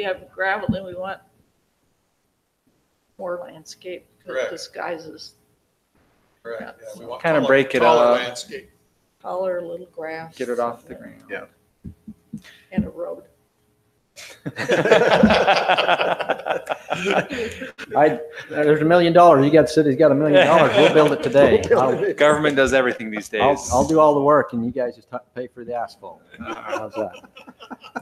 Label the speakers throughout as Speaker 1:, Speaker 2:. Speaker 1: we have gravel and we want more landscape. 'cause
Speaker 2: Correct.
Speaker 1: It disguises
Speaker 2: Correct, yeah, we want
Speaker 3: Kinda
Speaker 2: taller-
Speaker 3: break it
Speaker 2: taller
Speaker 3: up.
Speaker 2: Landscape,
Speaker 1: taller little grass.
Speaker 3: Get it off the ground.
Speaker 2: Yeah.
Speaker 1: And a road.
Speaker 4: I, Uh, there's a million dollars. You got, city's got a million dollars. We'll build it today. I'll,
Speaker 3: Government does everything these days.
Speaker 4: I'll, I'll do all the work and you guys just hu- pay for the asphalt. How's that?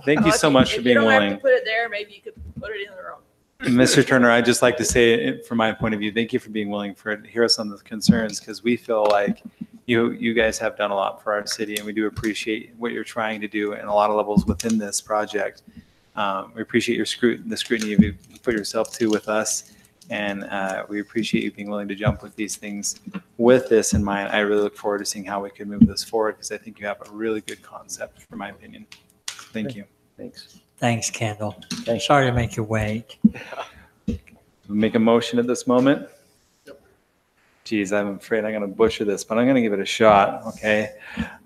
Speaker 3: Thank you so much for being
Speaker 1: Oh, If you don't have
Speaker 3: willing.
Speaker 1: to put it there, maybe you could put it in the road.
Speaker 3: Mr. Turner, I'd just like to say, it from my point of view, thank you for being willing for, to hear us on the concerns, because we feel like you, you guys have done a lot for our city, and we do appreciate what you're trying to do in a lot of levels within this project. Um, We appreciate your scrutiny, the scrutiny you put yourself to with us, and uh, we appreciate you being willing to jump with these things. With this in mind, I really look forward to seeing how we can move this forward, because I think you have a really good concept, from my opinion. Thank you.
Speaker 4: Thanks.
Speaker 5: Thanks, Kendall.
Speaker 4: Thanks.
Speaker 5: Sorry to make you wait.
Speaker 3: make a motion at this moment?
Speaker 2: Yep.
Speaker 3: Geez, I'm afraid I'm going to butcher this, but I'm going to give it a shot, okay?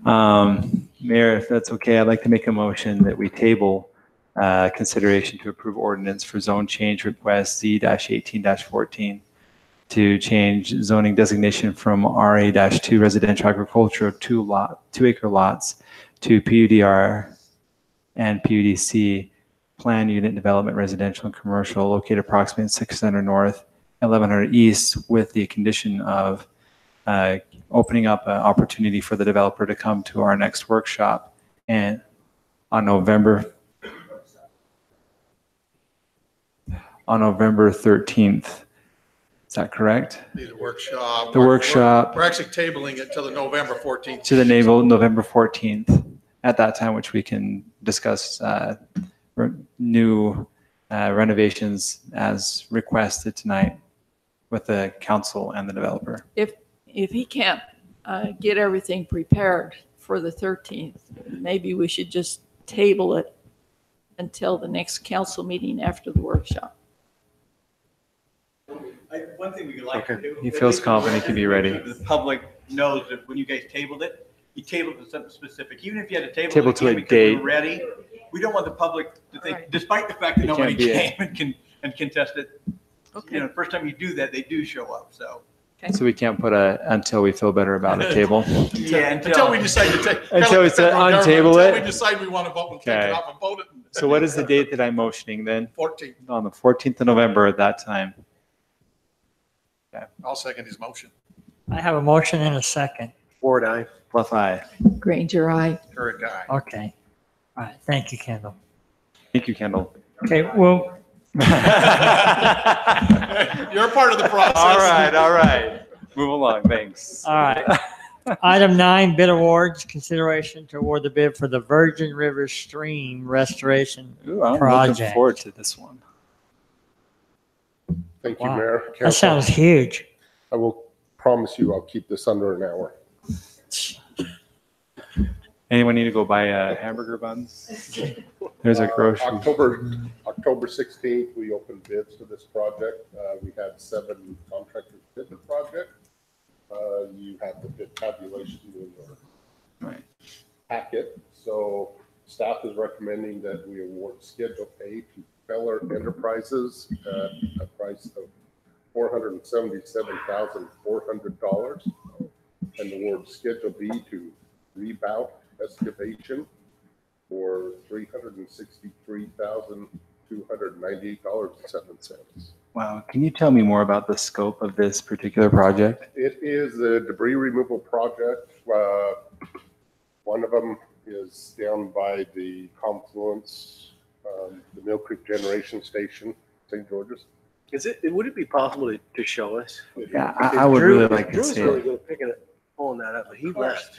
Speaker 3: Um, Mayor, if that's okay, I'd like to make a motion that we table uh, consideration to approve ordinance for zone change request Z-18-14 to change zoning designation from RA-2 residential agriculture of two lot, two acre lots to PUDR and PUDC plan unit development residential and commercial located approximately 600 north, 1100 east with the condition of uh, opening up an opportunity for the developer to come to our next workshop and on November on November 13th. Is that correct?
Speaker 2: need a workshop.
Speaker 3: The
Speaker 2: We're-
Speaker 3: workshop.
Speaker 2: We're actually tabling it till the November 14th.
Speaker 3: to the naval November 14th at that time, which we can discuss uh, re- new uh, renovations as requested tonight with the council and the developer.
Speaker 1: If he can't uh, get everything prepared for the 13th, maybe we should just table it until the next council meeting after the workshop.
Speaker 6: I, one thing we could like to
Speaker 3: Okay.
Speaker 6: do.
Speaker 3: He feels confident he can be ready.
Speaker 6: The public knows that when you guys tabled it, you tabled it to something specific, even if you had a table.
Speaker 3: Table to a date.
Speaker 6: Ready, we don't want the public to
Speaker 1: Right.
Speaker 6: think, despite the fact that
Speaker 3: It can't
Speaker 6: nobody
Speaker 3: be a-
Speaker 6: came and can, and contest it, you
Speaker 1: Okay,
Speaker 6: know, first time you do that, they do show up, so.
Speaker 3: So we can't put a, until we feel better about a table.
Speaker 6: Yeah,
Speaker 2: Until we decide to take. kinda
Speaker 3: Until
Speaker 2: like
Speaker 3: it's,
Speaker 2: the federal
Speaker 3: uh,
Speaker 2: government,
Speaker 3: untable
Speaker 2: until
Speaker 3: it.
Speaker 2: We decide we want to vote and take
Speaker 3: Okay.
Speaker 2: it off and vote it.
Speaker 3: So what is the date that I'm motioning then?
Speaker 2: 14th.
Speaker 3: On the 14th of November at that time.
Speaker 2: I'll second his motion.
Speaker 5: I have a motion and a second.
Speaker 4: Ford, I.
Speaker 3: Bluff eye.
Speaker 1: Granger, I.
Speaker 2: Third guy.
Speaker 5: Okay. All right. Thank you, Kendall.
Speaker 3: Thank you, Kendall.
Speaker 5: Okay, well,
Speaker 2: You're a part of the process.
Speaker 3: All right, all right. Move along, thanks.
Speaker 5: all right. Item nine, bid awards, consideration to award the bid for the Virgin River Stream Restoration.
Speaker 3: Ooh, I'm looking
Speaker 5: Project.
Speaker 3: forward to this one.
Speaker 7: Thank you,
Speaker 5: Wow.
Speaker 7: Mayor.
Speaker 5: That
Speaker 7: Council.
Speaker 5: sounds huge.
Speaker 7: I will promise you I'll keep this under an hour.
Speaker 3: Anyone need to go buy uh, hamburger buns? There's a grocery.
Speaker 7: October, October 16th, we opened bids for this project. Uh, We had seven contractors bid the project. Uh, You have the bid tabulation in your
Speaker 3: Right.
Speaker 7: packet. So staff is recommending that we award Schedule A to Feller Enterprises at a price of $477,400 and award Schedule B to Rebout Excavation for $363,298.07.
Speaker 3: Wow. Can you tell me more about the scope of this particular project?
Speaker 7: It is a debris removal project. Uh, One of them is down by the confluence, um, the Mill Creek Generation Station, St. George's.
Speaker 8: Is it, would it be possible to, to show us?
Speaker 3: Yeah, I, I would
Speaker 8: Drew-
Speaker 3: really like to
Speaker 8: Drew's
Speaker 3: see
Speaker 8: really
Speaker 3: it.
Speaker 8: good at picking it, pulling that up, but he left.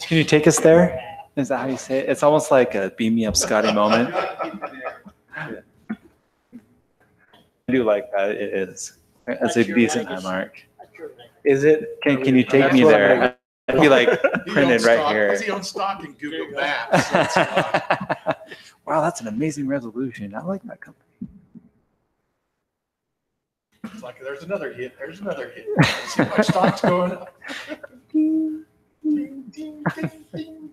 Speaker 3: Can you take us there? Is that how you say it? It's almost like a beam me up Scotty moment. I do like that. It is. That's a decent high mark.
Speaker 8: Is it?
Speaker 3: Can, can you take
Speaker 8: That's
Speaker 3: me
Speaker 8: what I'm
Speaker 3: there? I'd be like
Speaker 2: He
Speaker 3: printed
Speaker 2: owns
Speaker 3: right
Speaker 2: stock-
Speaker 3: here.
Speaker 2: He owns stock in Google Maps. so it's, uh,
Speaker 3: wow, that's an amazing resolution. I like that company.
Speaker 2: It's like, there's another hit, there's another hit. See my stock's going up. Ding, ding, ding, ding.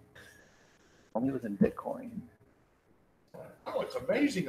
Speaker 3: Only was in Bitcoin.
Speaker 2: Oh, it's amazing